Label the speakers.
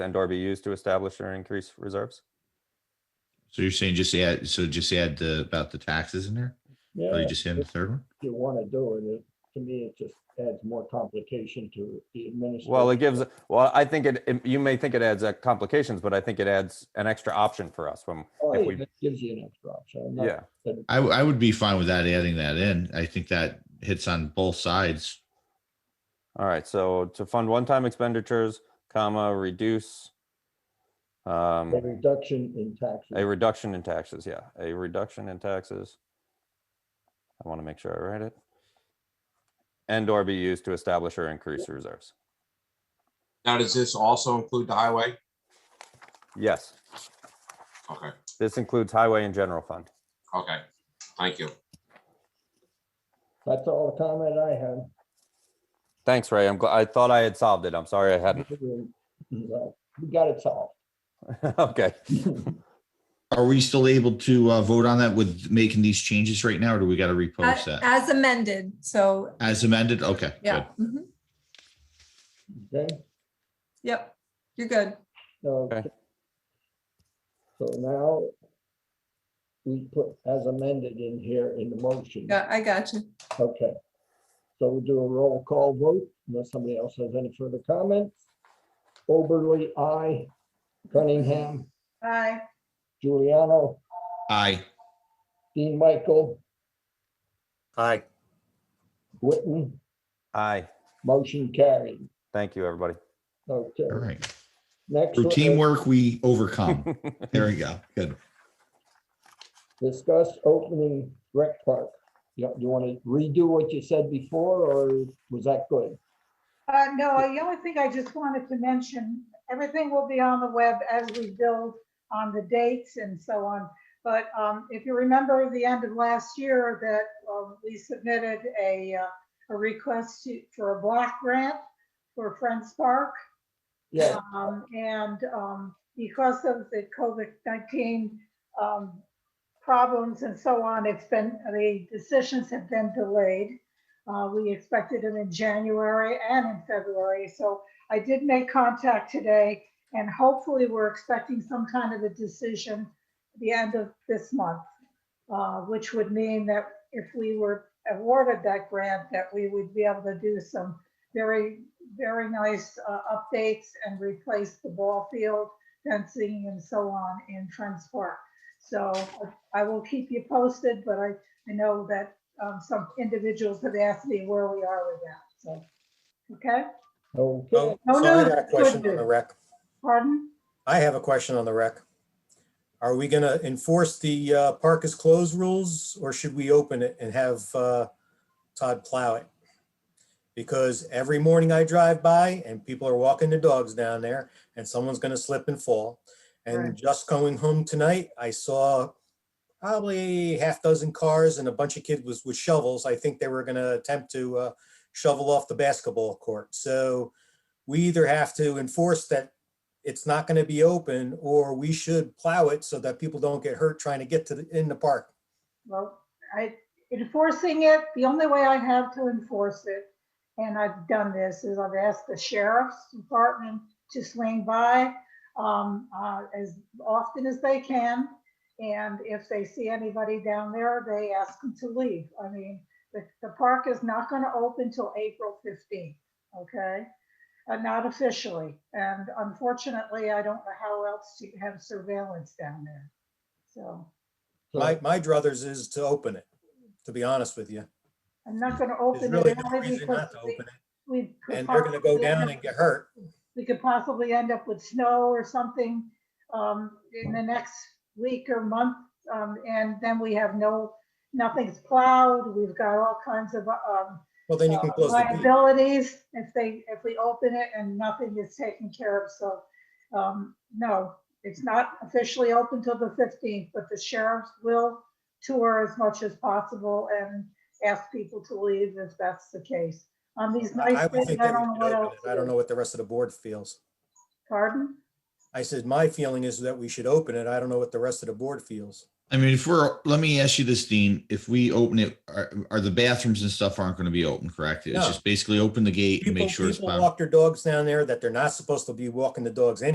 Speaker 1: then Door be used to establish or increase reserves?
Speaker 2: So you're saying just add, so just add the, about the taxes in there? Or
Speaker 3: Yeah,
Speaker 2: you
Speaker 3: if
Speaker 2: just add the third one?
Speaker 3: you want to do it, it, to me, it just adds more complication to it, the administration.
Speaker 1: Well, it gives, well, I think it, it- you may think it adds uh, complications, but I think it adds an extra option for us when, if we-
Speaker 3: It gives you an extra option. I'm not-
Speaker 1: yeah.
Speaker 2: I, w- I would be fine with that, adding that in. I think that hits on both sides.
Speaker 1: All right, so to fund one-time expenditures, comma, reduce um,
Speaker 3: A reduction in taxes.
Speaker 1: a reduction in taxes, yeah, a reduction in taxes. I want to make sure I write it. And or be used to establish or increase reserves.
Speaker 4: Now, does this also include the highway?
Speaker 1: Yes,
Speaker 4: Okay,
Speaker 1: this includes highway and general fund.
Speaker 4: okay, thank you.
Speaker 3: That's all the comment I have.
Speaker 1: Thanks, Ray. I'm glad, I thought I had solved it. I'm sorry I hadn't.
Speaker 3: We got it solved.
Speaker 1: Okay.
Speaker 2: Are we still able to uh, vote on that with making these changes right now, or do we got to repost
Speaker 5: A-
Speaker 2: that?
Speaker 5: As amended, so,
Speaker 2: As amended? Okay, good.
Speaker 5: yeah. mhm,
Speaker 3: Okay,
Speaker 5: Yep, you're good.
Speaker 3: okay. So now we put as amended in here in the
Speaker 2: Mm-hmm.
Speaker 3: motion.
Speaker 5: Yeah, I got you.
Speaker 3: Okay. So we'll do a roll call vote unless somebody else has any further comments. Oberly, I. Cunningham,
Speaker 5: Aye.
Speaker 3: Giuliano,
Speaker 2: Aye.
Speaker 3: Dean Michael,
Speaker 6: Aye.
Speaker 3: Witten,
Speaker 1: Aye.
Speaker 3: motion carried.
Speaker 1: Thank you, everybody.
Speaker 3: Okay.
Speaker 2: All right.
Speaker 3: Next.
Speaker 2: Through
Speaker 3: one is
Speaker 2: teamwork, we overcome. There we go. Good.
Speaker 3: Discuss opening rec park. You, you want to redo what you said before or was that good?
Speaker 7: Uh, no, the only thing I just wanted to mention, everything will be on the web as we build on the dates and so on. But, um, if you remember the end of last year that, um, we submitted a, uh, a request to- for a block grant for Friends Park.
Speaker 3: Yeah,
Speaker 7: Um, and, um, because of the COVID-19, um, problems and so on, it's been, the decisions have been delayed. Uh, we expected them in January and in February, so I did make contact today and hopefully we're expecting some kind of a decision at the end of this month, uh, which would mean that if we were awarded that grant, that we would be able to do some very, very nice uh, updates and replace the ball field fencing and so on in Friends Park. So I will keep you posted, but I, I know that um, some individuals have asked me where we are with that, so. Okay,
Speaker 3: okay,
Speaker 6: So
Speaker 7: No,
Speaker 6: Um, so I
Speaker 7: no,
Speaker 6: got a
Speaker 7: good
Speaker 6: question on
Speaker 7: news.
Speaker 6: the rec.
Speaker 7: pardon?
Speaker 6: I have a question on the rec. Are we going to enforce the uh, park is closed rules or should we open it and have uh, Todd plow it? Because every morning I drive by and people are walking their dogs down there and someone's going to slip and fall.
Speaker 7: Right.
Speaker 6: And just going home tonight, I saw probably half dozen cars and a bunch of kids with with shovels. I think they were going to attempt to uh, shovel off the basketball court. So we either have to enforce that it's not going to be open or we should plow it so that people don't get hurt trying to get to the, in the park.
Speaker 7: Well, I, enforcing it, the only way I have to enforce it, and I've done this, is I've asked the sheriff's department to swing by um, uh, as often as they can. And if they see anybody down there, they ask them to leave. I mean, the, the park is not gonna open till April fifteenth, okay? Uh, Not officially, and unfortunately, I don't know how else to have surveillance down there, so.
Speaker 6: My, my druthers is to open it, to be honest with you.
Speaker 7: I'm not gonna
Speaker 6: There's
Speaker 7: open
Speaker 6: really
Speaker 7: it
Speaker 6: no
Speaker 7: only
Speaker 6: reason not
Speaker 7: because
Speaker 6: to
Speaker 7: we-
Speaker 6: open it.
Speaker 7: we. could
Speaker 6: And they're going to go
Speaker 7: possibly end
Speaker 6: down
Speaker 7: up-
Speaker 6: and get hurt.
Speaker 7: We could possibly end up with snow or something um, in the next week or month. um, And then we have no, nothing's plowed. We've got all kinds of um,
Speaker 6: Well, then you can
Speaker 7: uh,
Speaker 6: close the gate.
Speaker 7: Liabilities if they, if we open it and nothing is taken care of, so, um, no, it's not officially open till the fifteenth, but the sheriffs will tour as much as possible and ask people to leave if that's the case. On these
Speaker 6: I
Speaker 7: nice
Speaker 6: would
Speaker 7: days,
Speaker 6: think
Speaker 7: I
Speaker 6: that we
Speaker 7: don't know
Speaker 6: should
Speaker 7: what
Speaker 6: open
Speaker 7: else.
Speaker 6: it. I don't know what the rest of the board feels.
Speaker 7: Pardon?
Speaker 6: I said, my feeling is that we should open it. I don't know what the rest of the board feels.
Speaker 2: I mean, if we're, let me ask you this, Dean, if we open it, are, are the bathrooms and stuff aren't going to be open, correct? It's
Speaker 6: No.
Speaker 2: just basically open the gate and
Speaker 6: People,
Speaker 2: make sure it's.
Speaker 6: people
Speaker 2: bound-
Speaker 6: walk their dogs down there that they're not supposed to be walking the dogs